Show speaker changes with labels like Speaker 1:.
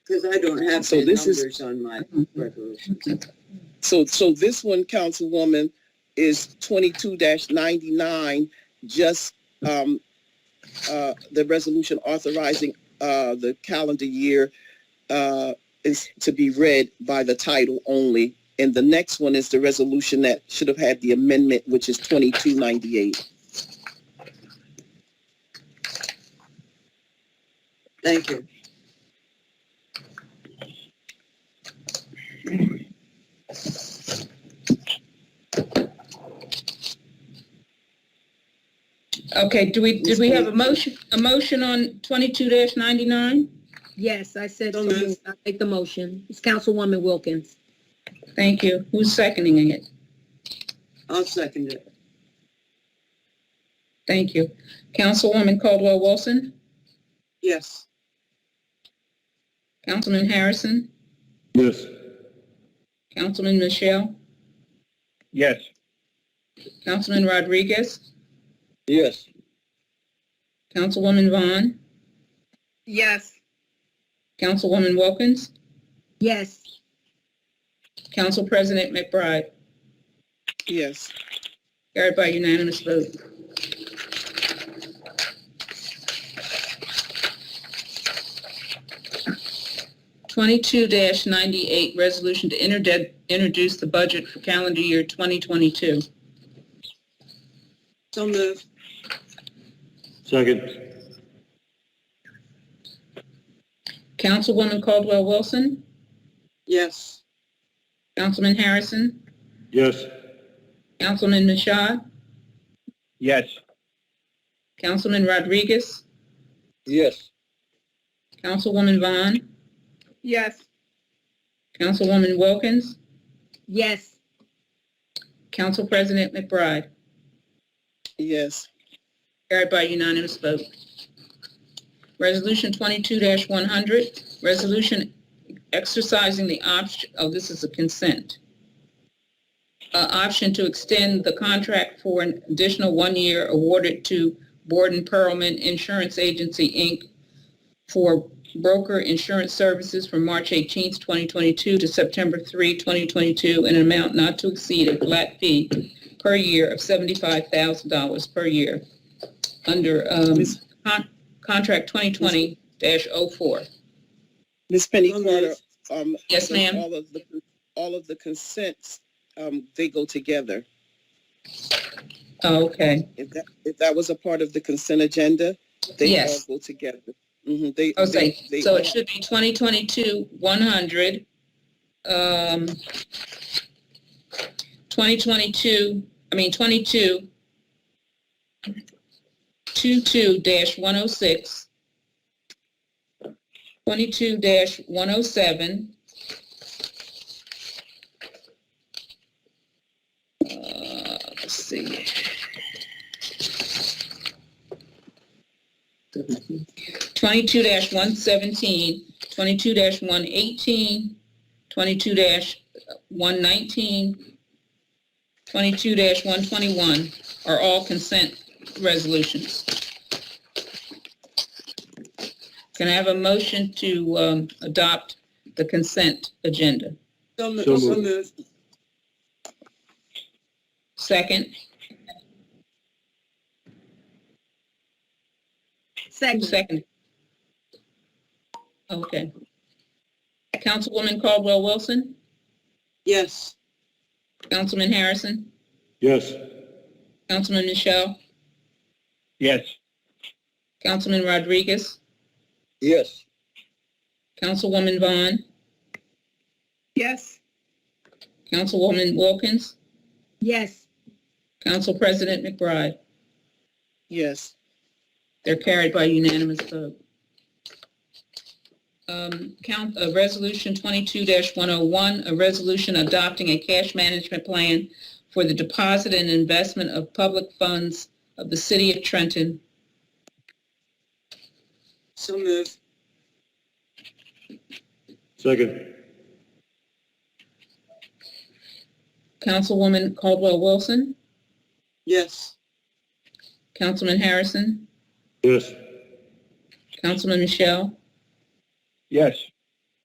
Speaker 1: Because I don't have
Speaker 2: So
Speaker 1: the
Speaker 2: this is-
Speaker 1: numbers on my resolution.
Speaker 2: So, so this one, Councilwoman, is twenty-two ninety-nine, just, um, uh, the resolution authorizing, uh, the calendar year, uh, is to be read by the title only. And the next one is the resolution that should have had the amendment, which is twenty-two ninety-eight.
Speaker 1: Thank you.
Speaker 3: Okay, do we, did we have a motion, a motion on twenty-two ninety-nine?
Speaker 4: Yes, I said,
Speaker 1: So
Speaker 4: so
Speaker 1: moved.
Speaker 4: moved. I make the motion. It's Councilwoman Wilkins.
Speaker 3: Thank you. Who's seconding it?
Speaker 1: I'll second it.
Speaker 3: Thank you. Councilwoman Caldwell Wilson,
Speaker 1: Yes.
Speaker 3: Councilman Harrison,
Speaker 5: Yes.
Speaker 3: Councilman Michelle,
Speaker 5: Yes.
Speaker 3: Councilman Rodriguez,
Speaker 5: Yes.
Speaker 3: Councilwoman Vaughn,
Speaker 4: Yes.
Speaker 3: Councilwoman Wilkins,
Speaker 4: Yes,
Speaker 3: Council President McBride.
Speaker 2: Yes.
Speaker 3: Carried by unanimous vote. Twenty-two ninety-eight, resolution to interde- introduce the budget for calendar year twenty twenty-two.
Speaker 1: So moved.
Speaker 5: Second.
Speaker 3: Councilwoman Caldwell Wilson,
Speaker 1: Yes.
Speaker 3: Councilman Harrison,
Speaker 5: Yes.
Speaker 3: Councilman Machad,
Speaker 5: Yes.
Speaker 3: Councilman Rodriguez,
Speaker 5: Yes.
Speaker 3: Councilwoman Vaughn. Yes. Councilwoman Wilkins,
Speaker 4: yes,
Speaker 3: Council President McBride.
Speaker 2: Yes.
Speaker 3: Carried by unanimous vote. Resolution twenty-two one hundred, resolution exercising the option, oh, this is a consent. Uh, option to extend the contract for an additional one year awarded to Borden Pearlman Insurance Agency, Inc. for broker insurance services from March eighteenth, twenty twenty-two to September 3, 2022, in an amount not to exceed a flat fee per year of seventy-five thousand dollars per year under um,
Speaker 2: Ms.
Speaker 3: con- contract 2020-04.
Speaker 2: Ms. Penny
Speaker 1: So
Speaker 2: Carter,
Speaker 1: moved.
Speaker 2: um.
Speaker 3: Yes, ma'am.
Speaker 2: All of the, all of the consents, um, they go together.
Speaker 3: Oh, Okay,
Speaker 2: If that, if that was a part of the consent agenda, they all
Speaker 3: Yes.
Speaker 2: go together. hmm they.
Speaker 3: I was
Speaker 2: they-
Speaker 3: saying,
Speaker 2: they
Speaker 3: so
Speaker 2: all-
Speaker 3: it should be 2022-100, um, 2022, I mean, 22, 22-106, 22-107, uh, let's see. twenty-two 117 22 one eighteen, twenty-two 119 22 one twenty-one are all consent resolutions. Can I have a motion to, um, adopt the consent agenda?
Speaker 1: So mo-
Speaker 5: So
Speaker 1: so
Speaker 5: moved.
Speaker 1: moved.
Speaker 3: Second,
Speaker 4: second,
Speaker 3: second. Okay. Councilwoman Caldwell Wilson,
Speaker 1: Yes.
Speaker 3: Councilman Harrison,
Speaker 5: Yes.
Speaker 3: Councilman Michelle,
Speaker 5: Yes.
Speaker 3: Councilman Rodriguez,
Speaker 5: Yes.
Speaker 3: Councilwoman Vaughn? Yes. Councilwoman Wilkins?
Speaker 4: yes,
Speaker 3: Council President McBride?
Speaker 2: Yes,
Speaker 3: They're carried by unanimous vote. Um, count, uh, resolution twenty-two one oh one, a resolution adopting a cash management plan for the deposit and investment of public funds of the city of Trenton.
Speaker 1: So moved.
Speaker 5: Second.
Speaker 3: Councilwoman Caldwell Wilson?
Speaker 1: Yes.
Speaker 3: Councilman Harrison?
Speaker 5: Yes.
Speaker 3: Councilman Michelle?
Speaker 5: Yes.